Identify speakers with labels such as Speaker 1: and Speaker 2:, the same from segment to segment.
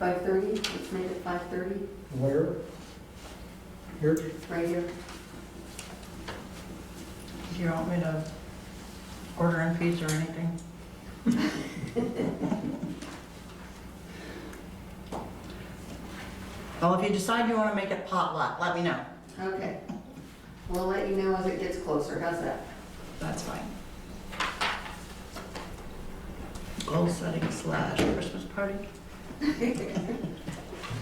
Speaker 1: 5:30, let's make it 5:30,
Speaker 2: Where? Here?
Speaker 1: right here.
Speaker 3: Do you want me to order in pizza or anything? Well, if you decide you want to make it potluck, let me know.
Speaker 1: Okay. We'll let you know as it gets closer, how's that?
Speaker 3: That's fine. Goal setting slash Christmas party?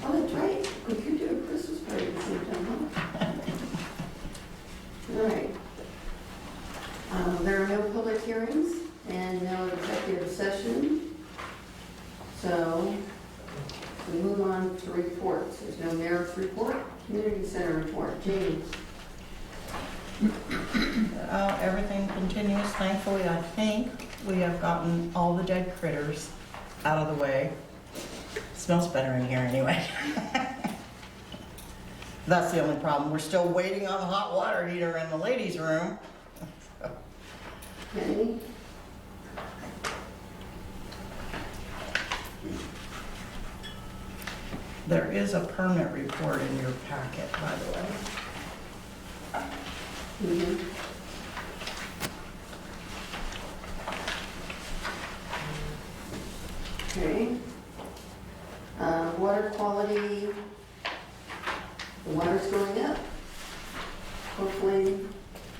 Speaker 1: Oh, that's right, we could do a Christmas party at the same time, huh? All right. Um, There are no public hearings and no executive session. So we move on to reports. There's no mayor's report, community center report. Jamie?
Speaker 3: Uh, Everything continues, thankfully, I think. We have gotten all the dead critters out of the way. Smells better in here anyway. That's the only problem. We're still waiting on the hot water heater in the ladies' room.
Speaker 1: Any?
Speaker 3: There is a permit report in your packet, by the way.
Speaker 1: Mhm. Okay. Uh, Water quality, the water's going up. Hopefully,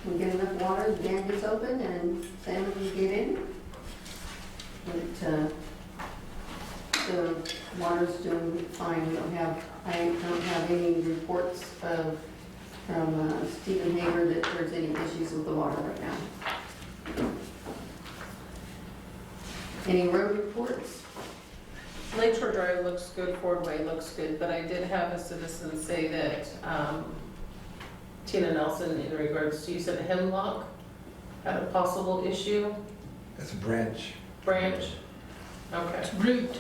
Speaker 1: we get enough water, the dam gets open and salmon can get in. But, uh, the water's doing fine, we don't have, I don't have any reports of from uh, Stephen Hager that there's any issues with the water right now. Any road reports?
Speaker 4: Lakeshore Drive looks good, Ford Way looks good, but I did have a citizen say that um, Tina Nelson, in regards to, you said hemlock had a possible issue,
Speaker 2: That's a branch.
Speaker 4: branch? Okay,
Speaker 3: Root.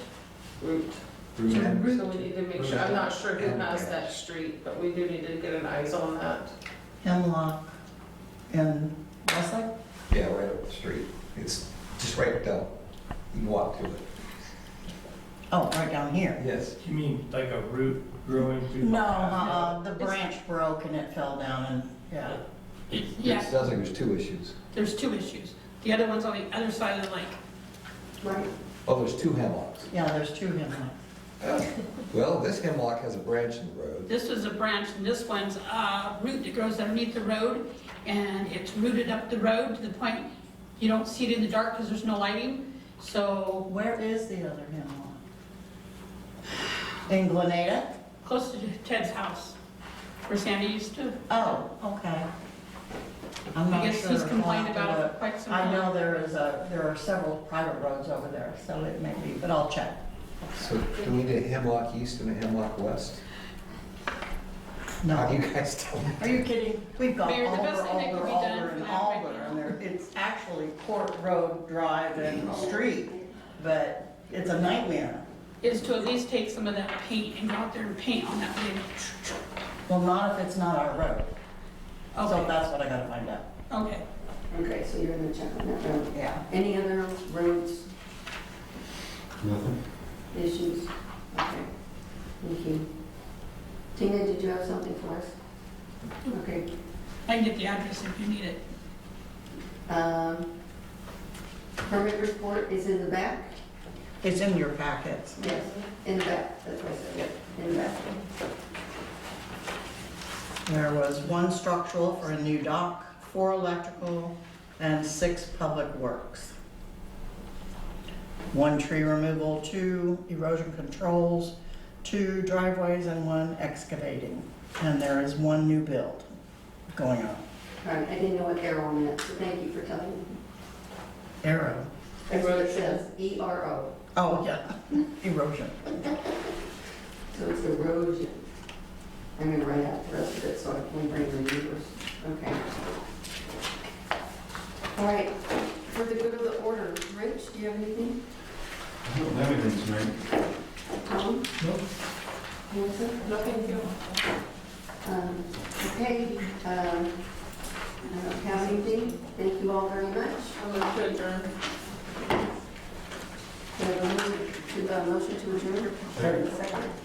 Speaker 4: root. So we need to make sure, I'm not sure who has that street, but we do need to get an eyes on that.
Speaker 3: Hemlock in Westlake?
Speaker 5: Yeah, right up the street. It's just right down. You can walk to it.
Speaker 3: Oh, right down here.
Speaker 5: Yes.
Speaker 6: You mean like a root growing through? the
Speaker 3: No,
Speaker 6: ground?
Speaker 3: uh-uh, the branch broke and it fell down and, yeah.
Speaker 5: It sounds like there's two issues.
Speaker 7: There's two issues. The other one's on the other side of the lake.
Speaker 1: Right.
Speaker 5: Oh, there's two hemlocks. Oh.
Speaker 3: Yeah, there's two hemlocks.
Speaker 5: Well, this hemlock has a branch in the road.
Speaker 7: This is a branch, and this one's a root that grows underneath the road, and it's rooted up the road to the point you don't see it in the dark because there's no lighting. So
Speaker 3: Where is the other hemlock? In Glenada?
Speaker 7: close to Ted's house, where Sandy used to.
Speaker 3: Oh, okay. I'm
Speaker 7: I
Speaker 3: not
Speaker 7: guess
Speaker 3: sure.
Speaker 7: he's
Speaker 3: I'll have
Speaker 7: complained
Speaker 3: to
Speaker 7: about it for
Speaker 3: look.
Speaker 7: quite some
Speaker 3: I
Speaker 7: time.
Speaker 3: know there is a, there are several private roads over there, so it may be, but I'll check.
Speaker 5: So do we need a hemlock east and a hemlock west? How do
Speaker 3: No,
Speaker 5: you guys tell me?
Speaker 3: are you kidding? We've got
Speaker 7: Mayor, the
Speaker 3: Alder,
Speaker 7: best thing that
Speaker 3: Alder,
Speaker 7: could be done
Speaker 3: Alder,
Speaker 7: for
Speaker 3: and
Speaker 7: that right
Speaker 3: Alder,
Speaker 7: now.
Speaker 3: and there, it's actually Court Road Drive and Street, but it's a nightmare.
Speaker 7: Is to at least take some of that paint and go out there and paint on that lake.
Speaker 3: Well, not if it's not our road. So
Speaker 7: Okay.
Speaker 3: that's what I gotta find out.
Speaker 7: Okay.
Speaker 1: Okay, so you're gonna check on that road.
Speaker 3: Yeah.
Speaker 1: Any other roads? Nothing. Issues? Okay. Thank you. Tina, did you have something for us? Okay.
Speaker 7: I can get the address if you need it.
Speaker 1: Um, Permit report is in the back?
Speaker 3: It's in your packets.
Speaker 1: Yes, in the back, that's what I said, yep, in the back.
Speaker 3: There was one structural for a new dock, four electrical, and six public works. One tree removal, two erosion controls, two driveways, and one excavating. And there is one new build going on.
Speaker 1: All right, I didn't know what arrow meant, so thank you for telling me.
Speaker 3: Arrow.
Speaker 1: That's what it says, E R O,
Speaker 3: Oh, yeah, erosion.
Speaker 1: so it's erosion. I'm gonna write out the rest of it so I can bring the numbers, okay. All right, for the good of the order, Rich, do you have anything?
Speaker 8: I don't have anything tonight.
Speaker 1: Tom? No. Melissa?
Speaker 4: Nothing here.
Speaker 1: Um, Okay, um, I don't have anything, thank you all very much.
Speaker 4: I'm going to adjourn.
Speaker 1: We have a move. We've got a motion to adjourn.
Speaker 8: Second.
Speaker 1: Second.